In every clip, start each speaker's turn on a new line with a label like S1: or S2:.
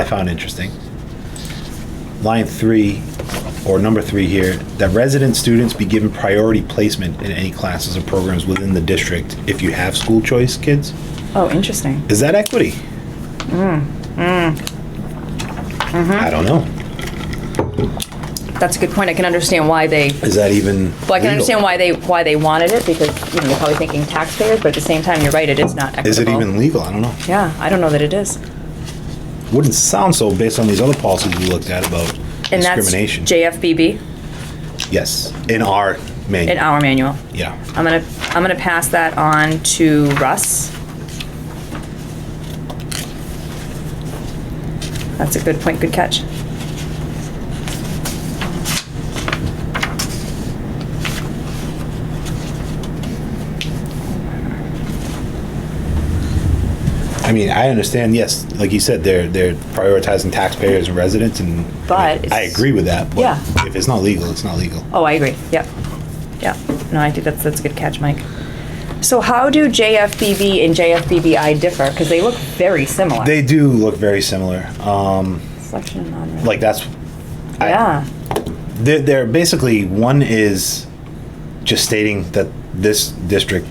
S1: I found interesting. Line three, or number three here, that resident students be given priority placement in any classes or programs within the district if you have school choice kids.
S2: Oh, interesting.
S1: Is that equity?
S2: Mm, mm-hmm.
S1: I don't know.
S2: That's a good point. I can understand why they,
S1: Is that even?
S2: well, I can understand
S1: legal?
S2: why they, why they wanted it because, you know, you're probably thinking taxpayers, but at the same time, you're right, it is not equitable.
S1: Is it even legal? I don't know.
S2: Yeah, I don't know that it is.
S1: Wouldn't sound so based on these other policies we looked at about
S2: And that's
S1: discrimination.
S2: JFBB
S1: Yes, in our
S2: in
S1: manual.
S2: our manual.
S1: Yeah.
S2: I'm gonna, I'm gonna pass that on to Russ. That's a good point, good catch.
S1: I mean, I understand, yes, like you said, they're, they're prioritizing taxpayers and residents and.
S2: But it's-
S1: I agree with that,
S2: Yeah.
S1: but if it's not legal, it's not legal.
S2: Oh, I agree, yep, yep. No, I think that's, that's a good catch, Mike. So how do JFBB and JFBBI differ? Because they look very similar.
S1: They do look very similar. Um,
S2: Selection and non-resident.
S1: like that's, I-
S2: Yeah,
S1: they're, they're basically, one is just stating that this district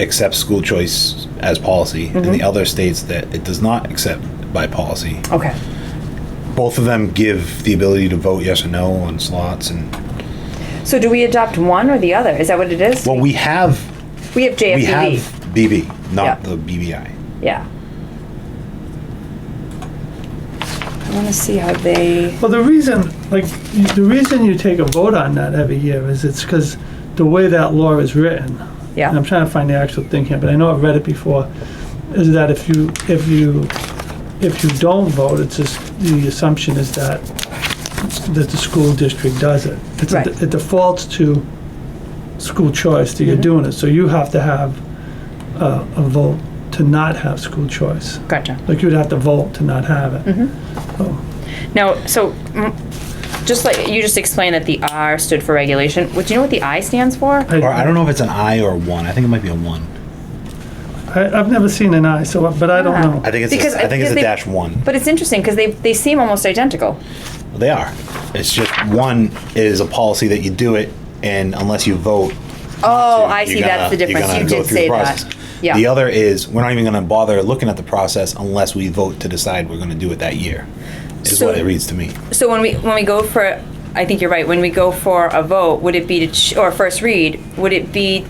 S1: accepts school choice as policy and
S2: Mm-hmm.
S1: the other states that it does not accept by policy.
S2: okay.
S1: Both of them give the ability to vote yes or no on slots and,
S2: So do we adopt one or the other? Is that what it is?
S1: well, we have,
S2: We have
S1: we have
S2: JFBB.
S1: BB, not
S2: Yeah.
S1: the BBI.
S2: Yeah. I wanna see how they,
S3: Well, the reason, like, y- the reason you take a vote on that every year is it's because the way that law is written, and
S2: yeah,
S3: I'm trying to find the actual thing here, but I know I've read it before, is that if you, if you, if you don't vote, it's just, the assumption is that, that the school district does it. It's a-
S2: Right.
S3: It defaults to school choice
S2: Mm-hmm.
S3: that you're doing it, so you have to have uh, a vote to not have school choice.
S2: gotcha.
S3: Like, you'd have to vote to not have it. So-
S2: Now, so, mm, just like, you just explained that the R stood for regulation, Would you know what the I stands for?
S1: Or I don't know if it's an I or a one. I think it might be a one.
S3: I, I've never seen an eye, so, but I don't
S2: Yeah.
S3: know.
S1: I think it's
S2: Because
S1: a, I think it's a
S2: they-
S1: dash one.
S2: But it's interesting, because they, they seem almost identical.
S1: They are. It's just one is a policy that you do it, and unless you vote.
S2: Oh,
S1: you're
S2: I see,
S1: gonna-
S2: that's the
S1: you're
S2: difference,
S1: gonna
S2: you
S1: go
S2: did
S1: through the
S2: say
S1: process.
S2: that. Yeah.
S1: The other is we're not even going to bother looking at the process unless we vote to decide we're going to do it that year. Is
S2: So-
S1: what it reads to me.
S2: So when we, when we go for, I think you're right, when we go for a vote, would it be to, ch- or first read, would it be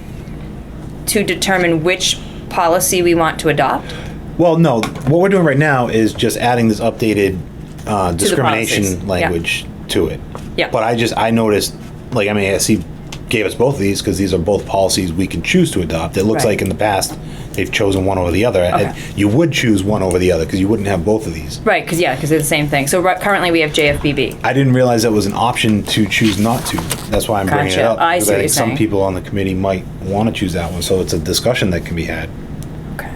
S2: to determine which policy we want to adopt?
S1: Well, no, what we're doing right now is just adding this updated uh,
S2: policies, yeah.
S1: discrimination language to it.
S2: Yeah.
S1: But I just, I noticed, like, I mean, SC gave us both of these because these are both policies we can choose to adopt. It looks
S2: Right.
S1: like in the past, they've chosen one over the other. and
S2: Okay.
S1: You would choose one over the other because you wouldn't have both of these.
S2: Right, because, yeah, because they're the same thing. So right- currently, we have JFBB.
S1: I didn't realize that was an option to choose not to. That's why I'm bringing it
S2: Gotcha.
S1: up.
S2: I
S1: because
S2: see what
S1: think
S2: you're
S1: Some
S2: saying.
S1: people on the committee might want to choose that one, so it's a discussion that can be had.
S2: Okay.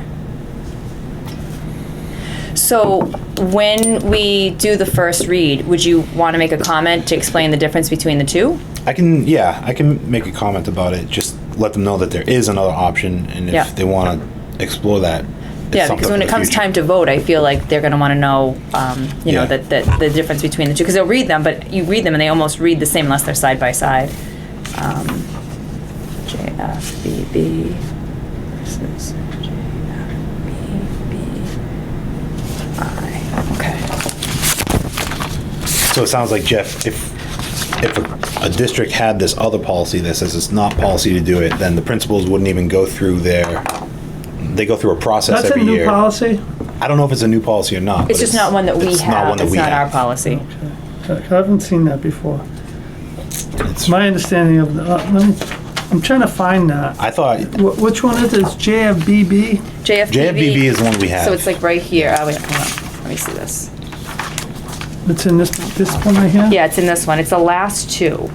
S2: So when we do the first read, would you want to make a comment to explain the difference between the two?
S1: I can, yeah, I can make a comment about it. Just let them know that there is another option, and if
S2: Yeah.
S1: they want to explore that, it's
S2: Yeah,
S1: something
S2: because
S1: for
S2: when
S1: the
S2: it comes
S1: future.
S2: time to vote, I feel like they're going to want to know, um, you know,
S1: Yeah.
S2: that, that the difference between the two, because they'll read them, but you read them and they almost read the same unless they're side by side. Um, JFBB versus JFBBI. Okay.
S1: So it sounds like Jeff, if if a, a district had this other policy that says it's not policy to do it, then the principals wouldn't even go through their. They go through a process
S3: That's a
S1: every
S3: new
S1: year.
S3: policy?
S1: I don't know if it's a new policy or not.
S2: It's
S1: but
S2: just not one that we
S1: it's Not
S2: have,
S1: one that
S2: it's
S1: we
S2: not our
S1: have.
S2: policy.
S3: I haven't seen that before.
S1: It's-
S3: My understanding of, the- uh, let me, I'm trying to find that.
S1: I thought
S3: Wh- Which one is it? It's JFBB?
S1: JFBB
S2: JFBB.
S1: is the one we have.
S2: So it's like right here, oh wait, hold on, let me see this.
S3: It's in this, this one right here?
S2: Yeah, it's in this one. It's the last two.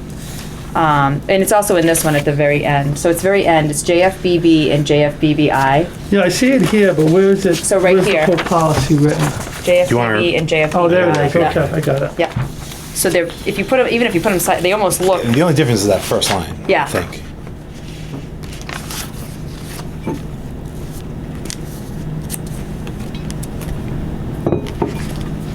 S2: Um, and it's also in this one at the very end. So it's very end. It's JFBB and JFBBI.
S3: Yeah, I see it here, but where is it?
S2: So right here.
S3: Where's the full policy written?
S2: JFBB
S1: you wanna-
S2: and JFBBI.
S3: Oh, there it is,
S2: Yeah.
S3: okay, I got it.
S2: Yeah. So they're, if you put them, even if you put them, they almost look,
S1: the only difference is that first line.
S2: Yeah.
S1: I think.